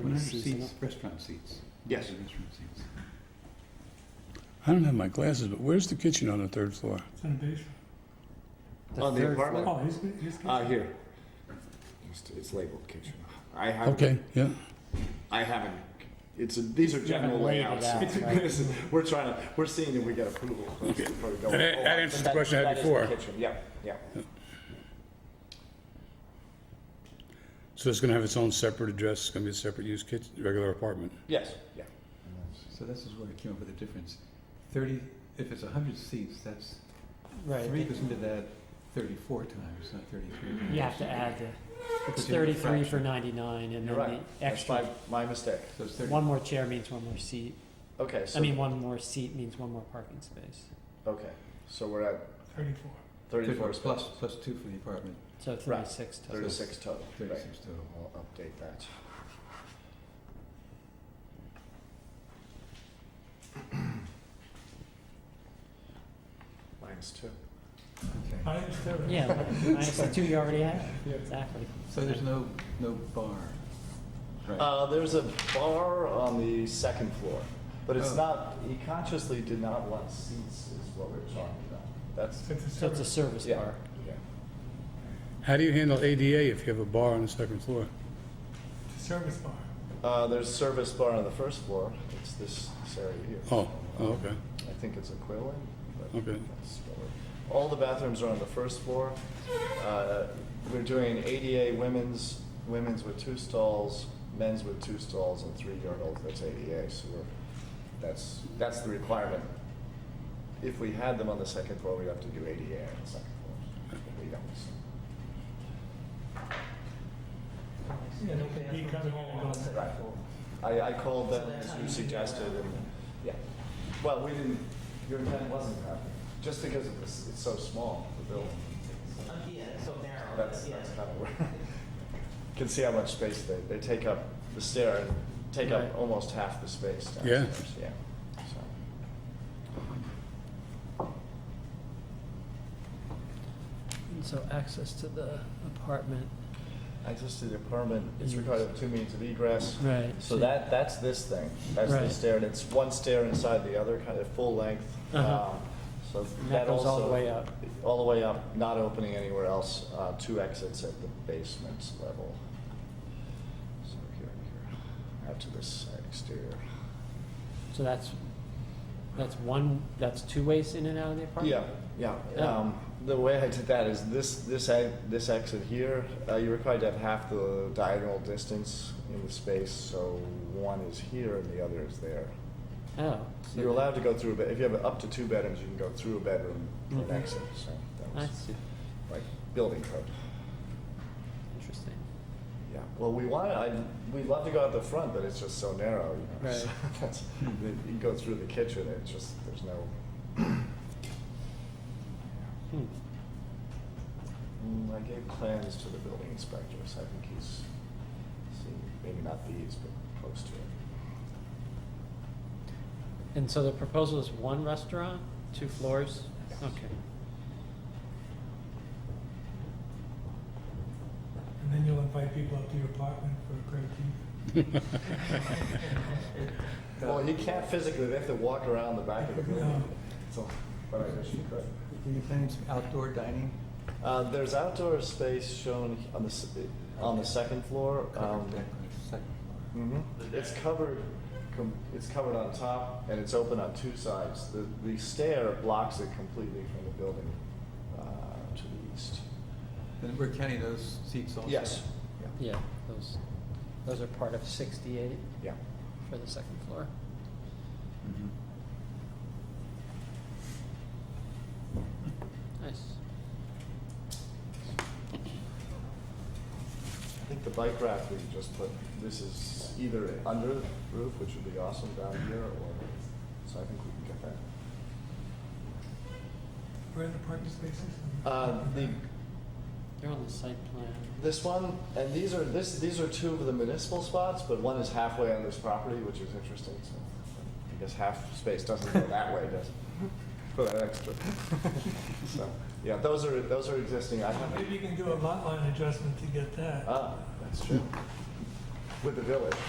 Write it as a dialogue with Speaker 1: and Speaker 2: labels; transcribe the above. Speaker 1: What are
Speaker 2: seats
Speaker 1: seats?
Speaker 2: enough?
Speaker 1: Restaurant seats.
Speaker 2: Yes.
Speaker 1: Restaurant seats.
Speaker 3: I don't have my glasses, but where's the kitchen on the third floor?
Speaker 4: It's in the basement.
Speaker 2: On the
Speaker 1: third
Speaker 2: apartment?
Speaker 4: Oh, his, his kitchen.
Speaker 2: Uh, here. It's- It's labeled kitchen. I haven't.
Speaker 3: Okay, yeah.
Speaker 2: I haven't. It's a, these are general
Speaker 5: haven't laid it
Speaker 2: layouts.
Speaker 5: out, right.
Speaker 2: This is- We're trying to, we're seeing if we get approval. That's probably going-
Speaker 3: And that- that
Speaker 2: oh,
Speaker 3: answers the
Speaker 2: that-
Speaker 3: question I had
Speaker 2: that is the
Speaker 3: before.
Speaker 2: kitchen. Yeah, yeah.
Speaker 3: So it's gonna have its own separate address, it's gonna be a separate use kitchen, regular apartment.
Speaker 2: Yes, yeah.
Speaker 1: So this is where I came up with the difference. Thirty, if it's hundred seats, that's, three
Speaker 5: Right,
Speaker 1: goes into that thirty-four times, not thirty-three. times.
Speaker 5: you have to add the, it's
Speaker 1: It's a
Speaker 5: thirty-three for
Speaker 1: fraction.
Speaker 5: ninety-nine, and
Speaker 2: You're
Speaker 5: then
Speaker 2: right.
Speaker 5: the
Speaker 2: That's my,
Speaker 5: extra,
Speaker 2: my mistake.
Speaker 1: So it's thirty,
Speaker 5: one more chair means one more seat.
Speaker 2: Okay, so.
Speaker 5: I mean, one more seat means one more parking space.
Speaker 2: Okay, so we're at
Speaker 4: Thirty-four.
Speaker 2: thirty-four
Speaker 1: thirty-four plus,
Speaker 2: spaces,
Speaker 1: plus two for the apartment,
Speaker 5: So thirty-six total.
Speaker 2: thirty-six total, right?
Speaker 1: thirty-six total.
Speaker 2: I'll update that. Minus two.
Speaker 1: Okay.
Speaker 4: I understand.
Speaker 5: Yeah, minus the two you already had, exactly.
Speaker 1: So there's no, no bar, right?
Speaker 2: Uh, there's a bar on the second floor, but it's
Speaker 1: Oh.
Speaker 2: not, he consciously did not want seats is what we're talking about. That's,
Speaker 4: Since it's
Speaker 5: So it's a
Speaker 4: separate.
Speaker 5: service
Speaker 2: yeah,
Speaker 5: bar.
Speaker 2: yeah.
Speaker 3: How do you handle ADA if you have a bar on the second floor?
Speaker 4: It's a service bar.
Speaker 2: Uh, there's a service bar on the first floor. It's this, this area here.
Speaker 3: Oh, oh, okay,
Speaker 2: I think it's a Quillen. but
Speaker 3: Okay.
Speaker 2: that's what we're- All the bathrooms are on the first floor. Uh, We're doing ADA women's, women's with two stalls, men's with two stalls and three urinals. That's ADA, so we're, that's, that's the requirement. If we had them on the second floor, we'd have to do ADA on the second floor. We don't.
Speaker 4: Yeah, he comes home and goes.
Speaker 2: Right. I, I called them as you suggested and, yeah. Well, we didn't, your intent wasn't happy, just because of this, it's so small, the building.
Speaker 6: Yeah, it's so narrow.
Speaker 2: That's,
Speaker 6: yeah.
Speaker 2: that's kind of where, can see how much space they, they take up, the stair and take up
Speaker 5: Right.
Speaker 2: almost half the space
Speaker 3: Yeah.
Speaker 2: downstairs, yeah. So,
Speaker 5: And so access to the apartment.
Speaker 2: I just did apartment, it's required of two means of egress.
Speaker 5: Right.
Speaker 2: So that, that's this thing, that's the
Speaker 5: Right.
Speaker 2: stair, and it's one stair inside the other, kind of full length.
Speaker 5: Uh-huh.
Speaker 2: um, So
Speaker 5: And
Speaker 2: that
Speaker 5: that goes all the
Speaker 2: also-
Speaker 5: way up.
Speaker 2: All the way up, not opening anywhere else, uh, two exits at the basement level. So here and here, out to this side exterior.
Speaker 5: So that's, that's one, that's two ways in and out of the apartment?
Speaker 2: Yeah, yeah.
Speaker 5: Yeah.
Speaker 2: Um, the way I did that is this, this, e- this exit here, uh, you're required to have half the diagonal distance in the space, so one is here and the other is there.
Speaker 5: Oh. so
Speaker 2: You're allowed to go through a bed, if you have up to two bedrooms, you can go through a bedroom for an
Speaker 5: Mhm.
Speaker 2: exit, so that
Speaker 5: I
Speaker 2: was
Speaker 5: see,
Speaker 2: like building code.
Speaker 5: interesting.
Speaker 2: Yeah, well, we want, I, we'd love to go out the front, but it's just so narrow, you know.
Speaker 5: Right.
Speaker 2: so That's, you go through the kitchen, it's just, there's no,
Speaker 5: Hmm.
Speaker 2: Mm, I gave plans to the building inspector, so I think he's seen, maybe not these, but close to it.
Speaker 5: And so the proposal is one restaurant, two floors? Okay.
Speaker 4: And then you'll invite people up to your apartment for a great tea.
Speaker 2: Well, you can't physically, they have to walk around the back of the building,
Speaker 4: No.
Speaker 2: so, but I wish you could.
Speaker 1: Are you planning some outdoor dining?
Speaker 2: Uh, there's outdoor space shown on the, s- on the second floor.
Speaker 1: Covered
Speaker 2: um,
Speaker 1: deck on the second floor.
Speaker 2: Mhm. It's covered, com- it's covered on top and it's open on two sides. The, the stair blocks it completely from the building, uh, to the east.
Speaker 1: Then we're counting those seats also?
Speaker 2: Yes. Yeah.
Speaker 5: Yeah, those, those are part of sixty-eight
Speaker 2: Yeah.
Speaker 5: for the second floor.
Speaker 1: Mhm.
Speaker 5: Nice.
Speaker 2: I think the bike rack we just put, this is either under the roof, which would be awesome down here, or, so I think we can get that.
Speaker 4: Where are the parking spaces?
Speaker 2: Uh, the,
Speaker 5: They're on the site plan.
Speaker 2: this one, and these are, this, these are two of the municipal spots, but one is halfway on this property, which is interesting, so I guess half space doesn't go that way, does it? For that extra. So, yeah, those are, those are existing, I haven't. Uh,
Speaker 4: Maybe you can do a lot line adjustment to get that.
Speaker 2: Ah, that's true. With the village.